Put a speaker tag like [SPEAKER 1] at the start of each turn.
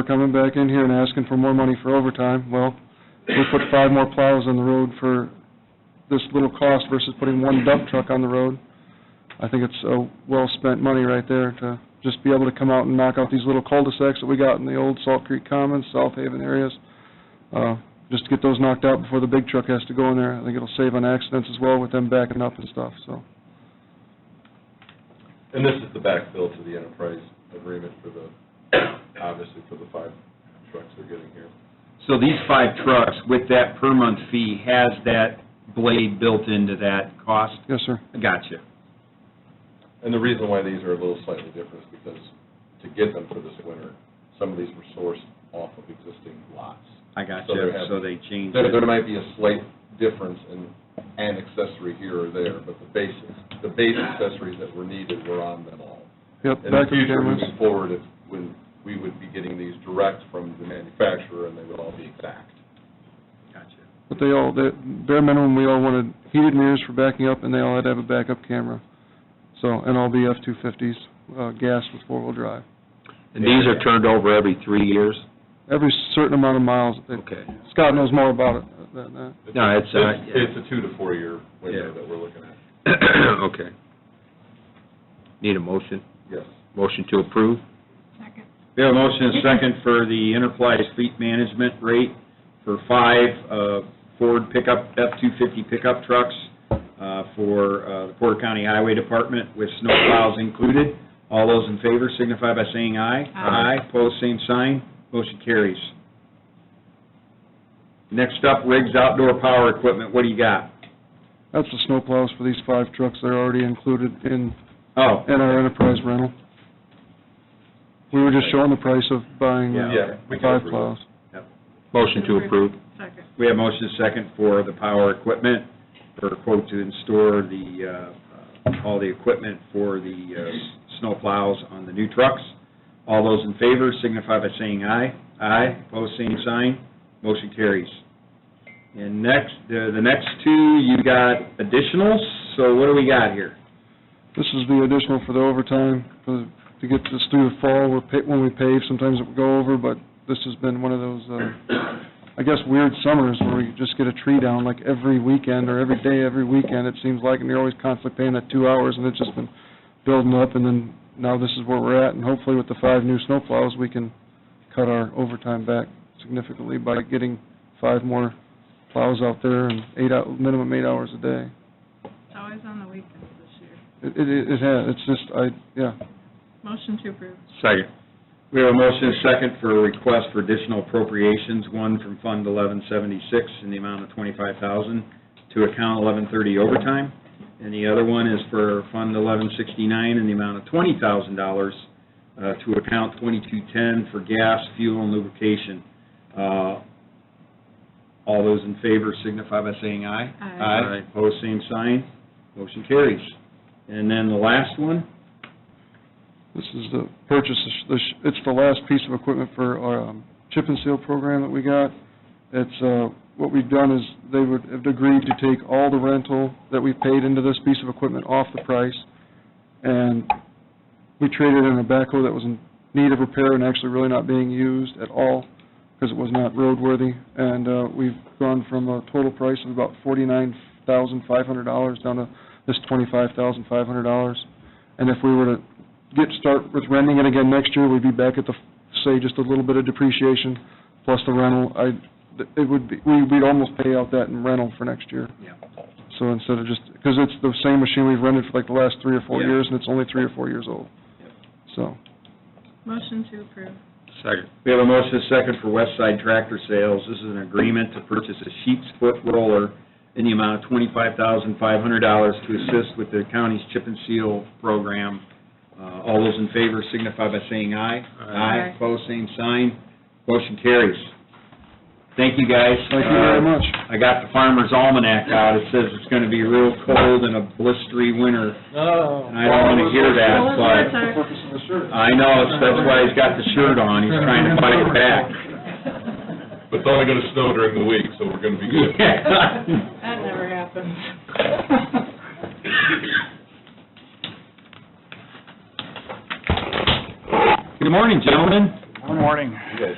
[SPEAKER 1] We're coming back in here and asking for more money for overtime. Well, we put five more plows on the road for this little cost versus putting one dump truck on the road. I think it's uh, well-spent money right there to just be able to come out and knock out these little cul-de-sacs that we got in the old Salt Creek Commons, South Haven areas, uh, just to get those knocked out before the big truck has to go in there. I think it'll save on accidents as well with them backing up and stuff, so.
[SPEAKER 2] And this is the backfill to the enterprise agreement for the, obviously for the five trucks they're getting here.
[SPEAKER 3] So these five trucks, with that per month fee, has that blade built into that cost?
[SPEAKER 1] Yes, sir.
[SPEAKER 3] Gotcha.
[SPEAKER 2] And the reason why these are a little slightly different is because to get them for this winter, some of these were sourced off of existing lots.
[SPEAKER 3] I gotcha,
[SPEAKER 2] So they're having-
[SPEAKER 3] so they changed
[SPEAKER 2] There, there
[SPEAKER 3] it.
[SPEAKER 2] might be a slight difference in an accessory here or there, but the basis, the base accessories that were needed were on them all.
[SPEAKER 1] Yep,
[SPEAKER 2] In the
[SPEAKER 1] backup
[SPEAKER 2] future,
[SPEAKER 1] cameras.
[SPEAKER 2] moving forward, if, when, we would be getting these direct from the manufacturer and they would all be exact.
[SPEAKER 3] Gotcha.
[SPEAKER 1] But they all, the bare minimum, we all wanted heated mirrors for backing up, and they all had to have a backup camera. So, and all the F-250s, uh, gas with four-wheel drive.
[SPEAKER 4] And these are turned over every three years?
[SPEAKER 1] Every certain amount of miles, they-
[SPEAKER 4] Okay.
[SPEAKER 1] Scott knows more about it than that.
[SPEAKER 4] No, it's, uh,
[SPEAKER 2] It's it's a two to four-year window
[SPEAKER 4] Yeah.
[SPEAKER 2] that we're looking at,
[SPEAKER 4] Okay. Need a motion?
[SPEAKER 2] yes.
[SPEAKER 4] Motion to approve?
[SPEAKER 3] We have a motion and a second for the Enterprise Fleet Management rate for five uh, Ford pickup, F-250 pickup trucks uh, for uh, the Porter County Highway Department with snowplows included. All those in favor signify by saying aye.
[SPEAKER 4] Aye.
[SPEAKER 3] Pose same sign, motion carries. Next up, Riggs Outdoor Power Equipment, what do you got?
[SPEAKER 1] That's the snowplows for these five trucks that are already included in,
[SPEAKER 3] Oh,
[SPEAKER 1] in our enterprise rental. We were just showing the price of buying uh,
[SPEAKER 2] Yeah, we can
[SPEAKER 1] five
[SPEAKER 2] approve it.
[SPEAKER 1] plows.
[SPEAKER 4] Motion to approve?
[SPEAKER 5] Second.
[SPEAKER 3] we have motion and second for the power equipment, for quote to install the, uh, uh, all the equipment for the uh, snow plows on the new trucks. All those in favor signify by saying aye. Aye, pose same sign, motion carries. And next, the the next two, you got additionals, so what do we got here?
[SPEAKER 1] This is the additional for the overtime, for, to get this through the fall, we're, pa- when we pave, sometimes it would go over, but this has been one of those, uh, I guess weird summers where we just get a tree down like every weekend or every day, every weekend, it seems like, and you're always constantly paying that two hours, and it's just been building up, and then now this is where we're at, and hopefully with the five new snowplows, we can cut our overtime back significantly by getting five more plows out there and eight out, minimum eight hours a day.
[SPEAKER 5] It's always on the weekends this year.
[SPEAKER 1] It, it, it has, it's just, I, yeah,
[SPEAKER 5] Motion to approve.
[SPEAKER 4] Second.
[SPEAKER 3] We have a motion and second for a request for additional appropriations, one from Fund 1176 in the amount of 25000 to account 1130 overtime, and the other one is for Fund 1169 in the amount of $20,000 uh, to account 2210 for gas, fuel, and lubrication. Uh, All those in favor signify by saying aye.
[SPEAKER 5] Aye.
[SPEAKER 3] Aye, pose same sign, motion carries. And then the last one,
[SPEAKER 1] This is the purchase, of- the sh- it's the last piece of equipment for our um, chip and seal program that we got. It's, uh, what we've done is, they would have agreed to take all the rental that we paid into this piece of equipment off the price, and we traded in a backhoe that was in need of repair and actually really not being used at all, because it was not roadworthy, and uh, we've gone from a total price of about forty-nine thousand five hundred dollars down to this twenty-five thousand five hundred dollars. And if we were to get, start with renting it again next year, we'd be back at the, say, just a little bit of depreciation plus the rental. I, it would be, we- we'd almost pay out that in rental for next year.
[SPEAKER 3] Yeah.
[SPEAKER 1] So instead of just, because it's the same machine we've rented for like the last three or four
[SPEAKER 3] Yeah.
[SPEAKER 1] years, and it's only three or four years old. So,
[SPEAKER 5] Motion to approve.
[SPEAKER 4] Second.
[SPEAKER 3] We have a motion and a second for West Side Tractor Sales. This is an agreement to purchase a sheep's foot roller in the amount of $25,500 to assist with the county's chip and seal program. Uh, All those in favor signify by saying aye.
[SPEAKER 5] Aye.
[SPEAKER 3] Opposed, same sign. Motion carries. Thank you, guys.
[SPEAKER 1] thank you very
[SPEAKER 3] Uh,
[SPEAKER 1] much.
[SPEAKER 3] I got the farmer's almanac out. It says it's going to be real cold and a blistery winter. And I don't want to hear that,
[SPEAKER 5] Well,
[SPEAKER 3] but...
[SPEAKER 5] it's our-
[SPEAKER 3] I know, so that's why he's got the shirt on, he's trying to fight it back.
[SPEAKER 2] But it's only gonna snow during the week, so we're gonna be good.
[SPEAKER 5] That never happens.
[SPEAKER 3] Good morning, gentlemen.
[SPEAKER 6] Good morning.
[SPEAKER 7] You guys